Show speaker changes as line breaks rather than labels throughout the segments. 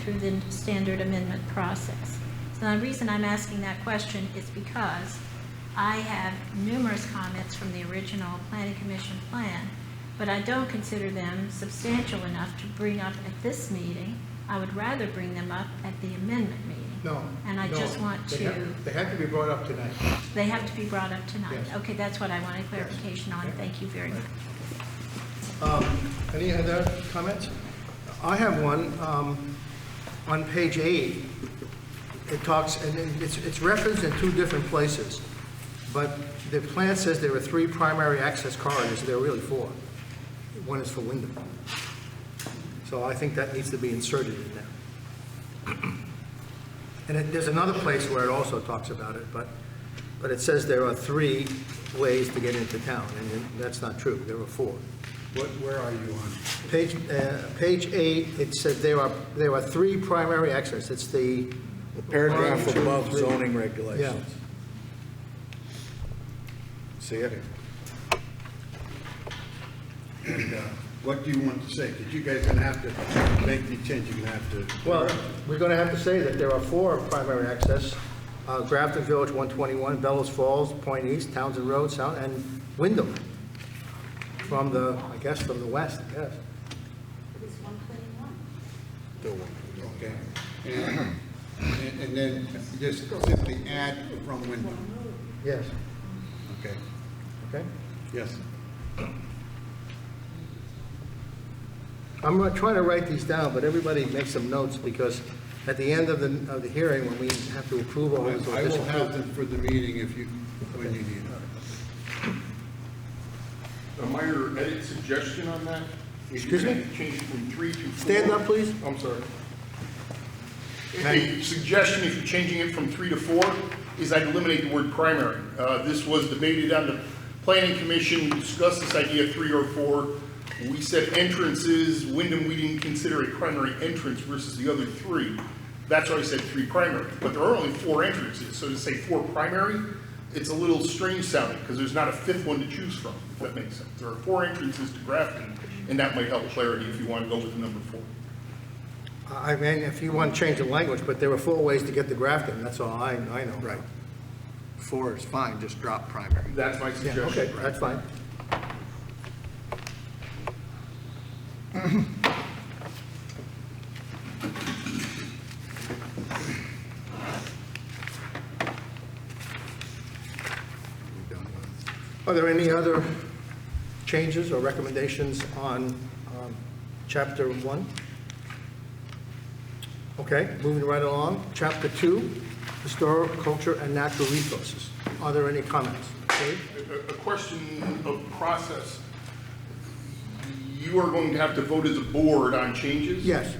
through the standard amendment process. So the reason I'm asking that question is because I have numerous comments from the original planning commission plan, but I don't consider them substantial enough to bring up at this meeting. I would rather bring them up at the amendment meeting.
No.
And I
no,
just want
they
to-
have- They have to be brought up tonight.
They have to be brought up tonight.
Yes.
Okay, that's what I wanted clarification on.
Yes.
Thank you very much.
Um, Any other comments? I have one. um, On page eight, it talks, and it- it's it's referenced in two different places, but the plan says there are three primary access corridors, there are really four. One is for Wyndham. So I think that needs to be inserted in there. And it- there's another place where it also talks about it, but, but it says there are three ways to get into town, and that's not true, there are four.
What, where are you on?
Page, uh, page eight, it said there are, there are three primary access. It's the.
Paragraph
one, two,
above
three.
zoning regulations. See it? And, uh, What do you want to say? Because you guys are gonna have to make the change, you're gonna have to.
Well, we're going to have to say that there are four primary access. uh, Grafton Village, 121, Bellows Falls, Point East, Townsend Road, South, and Wyndham. From the, I guess, from the west, yes.
do one, Okay. And- And and then just simply add from window,
Yes,
okay?
okay?
Yes.
I'm gonna try to write these down, but everybody make some notes because at the end of the, of the hearing, when we have to approve all this or
I will have
disapprove.
them for the meeting if you, when you need them.
A minor edit suggestion on that? If you
Excuse me?
Change from three to four.
Stand up, please.
I'm sorry.
Madam-
A suggestion, if you're changing it from three to four, is I'd eliminate the word primary. Uh, This was debated on the planning commission, We discussed this idea of three or four. We said entrances, Wyndham, we didn't consider a primary entrance versus the other three. That's why I said three primary, but there are only four entrances, so to say four primary, it's a little strange sounding, because there's not a fifth one to choose from, if that makes sense. There are four entrances to Grafton, and that might help clarity if you want to go with number four.
I mean, if you want to change the language, but there were four ways to get to Grafton, that's all I, I know.
Right. Four is fine, just drop primary.
That's my
Yeah,
suggestion.
okay, that's fine. Are there any other changes or recommendations on um, Chapter 1? Okay, moving right along. Chapter 2, Historic, Culture, and Natural Resources. Are there any comments? Dave?
A- A question of process. You are going to have to vote as a board on changes?
Yes,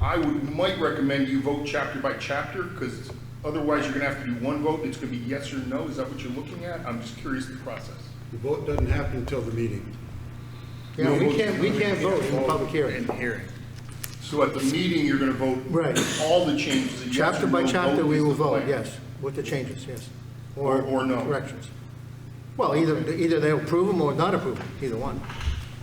I would, might recommend you vote chapter by chapter, because otherwise you're going to have to do one vote, and it's going to be yes or no, is that what you're looking at? I'm just curious the process.
The vote doesn't happen until the meeting.
yeah, we can't, we can't vote in the public hearing.
hearing.
So at the meeting, you're going to vote.
Right.
All the changes. a yes or
Chapter by
no
chapter,
vote
we
is
will
the
vote,
plan.
yes, with the changes, yes.
Or- or no.
Corrections. Well, either, either they approve them or not approve them, either one.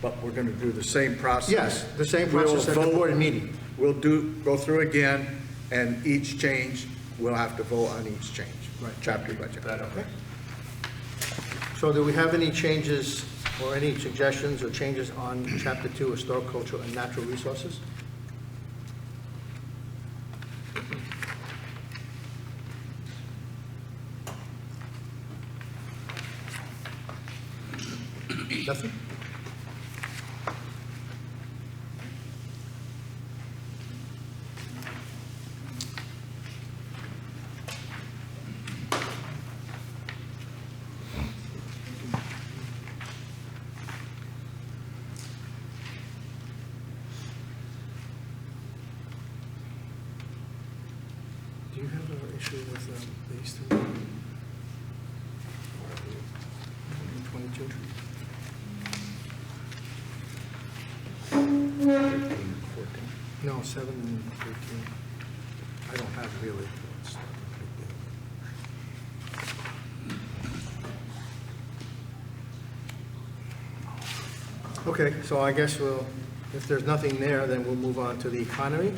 But we're going to do the same process.
Yes, the same
We'll
process at the
vote-
board meeting.
We'll do, go through again, and each change, we'll have to vote on each change.
Right.
Chapter by chapter.
So do we have any changes or any suggestions or changes on Chapter 2, Historic, Cultural, and Natural Resources? Nothing? Do you have an issue with um, these three? 22? No, 7 and 13. I don't have really. it's not a big deal. Okay, so I guess we'll, if there's nothing there, then we'll move on to the economy.